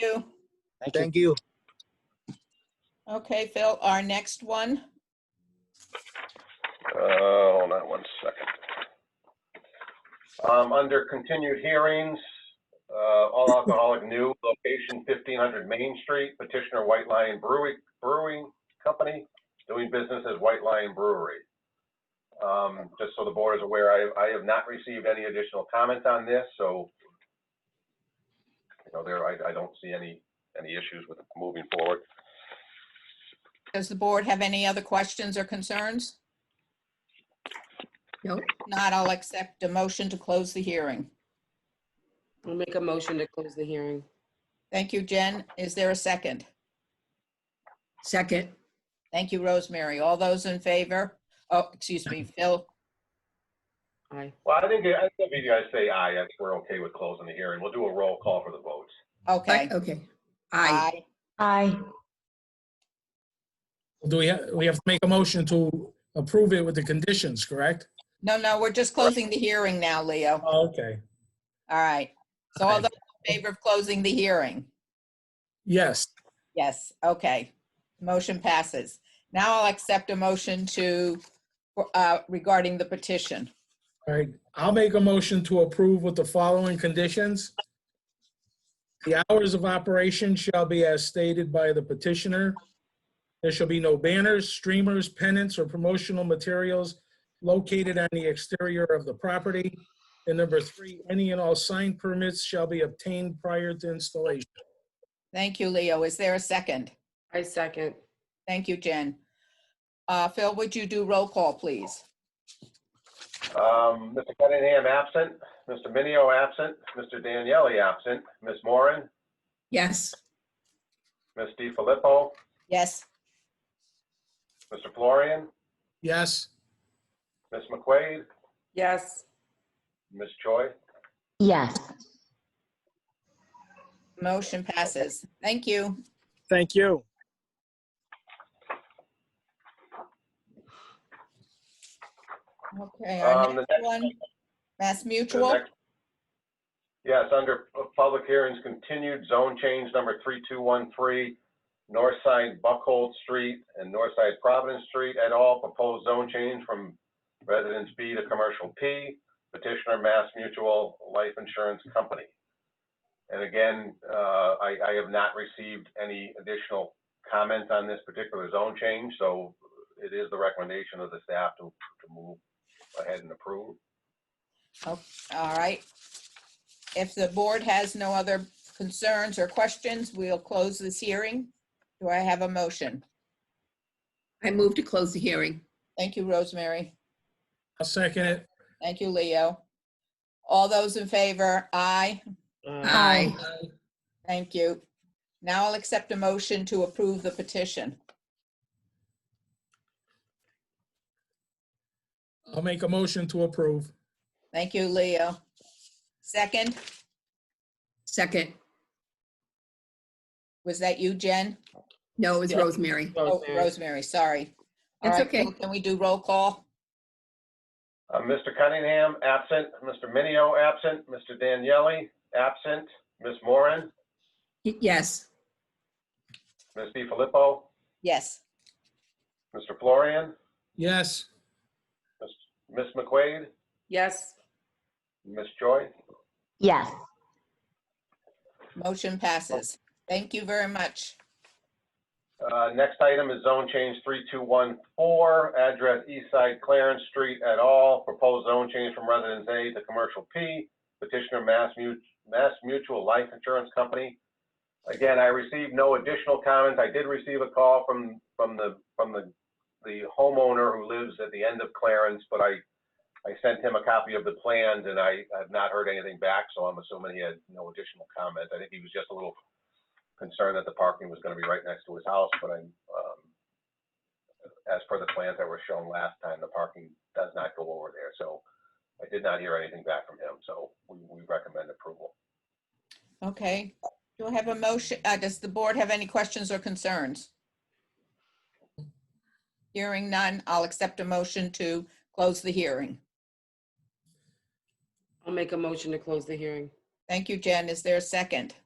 you. Thank you. Thank you. Okay, Phil, our next one. Uh, hold on one second. Um, under continued hearings, uh, all alcoholic new location fifteen hundred Main Street, petitioner White Lion Brewing, Brewing Company, doing business as White Lion Brewery. Um, just so the board is aware, I, I have not received any additional comments on this, so you know, there, I, I don't see any, any issues with moving forward. Does the board have any other questions or concerns? No, Not, I'll accept a motion to close the hearing. I'll make a motion to close the hearing. Thank you, Jen. Is there a second? Second. Thank you, Rosemary. All those in favor? Oh, excuse me, Phil. Aye. Well, I think, I think if you guys say aye, I think we're okay with closing the hearing. We'll do a roll call for the votes. Okay. Okay. Aye. Aye. Do we, ha- we have to make a motion to approve it with the conditions, correct? No, no, we're just closing the hearing now, Leo. Oh, Okay, All right. So all Aye. those in favor of closing the hearing? yes. Yes, okay. Motion passes. Now I'll accept a motion to, uh, regarding the petition. All right, I'll make a motion to approve with the following conditions. The hours of operation shall be as stated by the petitioner. There shall be no banners, streamers, pennants, or promotional materials located on the exterior of the property. And number three, any and all sign permits shall be obtained prior to installation. Thank you, Leo. Is there a second? I second. Thank you, Jen. Uh, Phil, would you do roll call, please? Um, Mr. Cunningham absent, Mr. Minio absent, Mr. Daniele absent, Ms. Moran, Yes. Ms. Di Filippo, Yes, Mr. Florian, Yes, Ms. McQuaid, Yes. Ms. Choi. Yes. motion passes. Thank you. Thank you. Okay, our Um, the next one, Mass The Mutual. next- Yes, under pu- public hearings, continued zone change number 3213, north side Buckhold Street and north side Providence Street et al. Proposed zone change from residence B to commercial P. Petitioner Mass Mutual Life Insurance Company. And again, uh, I I have not received any additional comment on this particular zone change, so it is the recommendation of the staff to to move ahead and approve. All right. If the board has no other concerns or questions, we'll close this hearing. Do I have a motion? I move to close the hearing. Thank you, Rosemary. I'll second it. Thank you, Leo. All those in favor, aye. Uh, Aye. Thank you. Now I'll accept a motion to approve the petition. I'll make a motion to approve. Thank you, Leo. Second, Second. was that you, Jen? No, it was Yeah. Rosemary. Oh, Rosemary. Rosemary, sorry. All That's right, okay. Phil, Can we do roll call? Uh, Mr. Cunningham, absent. Mr. Minio, absent. Mr. Daniele, absent. Ms. Moran, Y- Yes. Ms. DiFilippo, Yes. Mr. Florian, Yes, Ms. McQuaid, Yes. Ms. Choi. Yes. Motion passes. Thank you very much. Uh, Next item is zone change 3214, address East Side Clarence Street et al. Proposed zone change from Residence A to Commercial P. Petitioner Mass Mut- Mass Mutual Life Insurance Company. Again, I received no additional comments. I did receive a call from, from the, from the the homeowner who lives at the end of Clarence, but I, I sent him a copy of the plans and I have not heard anything back, so I'm assuming he had no additional comments. I think he was just a little concerned that the parking was gonna be right next to his house, but I'm, um, as per the plans that were shown last time, the parking does not go over there, so I did not hear anything back from him, so we, we recommend approval. Okay. Do I have a motion? uh, Does the board have any questions or concerns? Hearing none, I'll accept a motion to close the hearing. I'll make a motion to close the hearing. Thank you, Jen. Is there a second?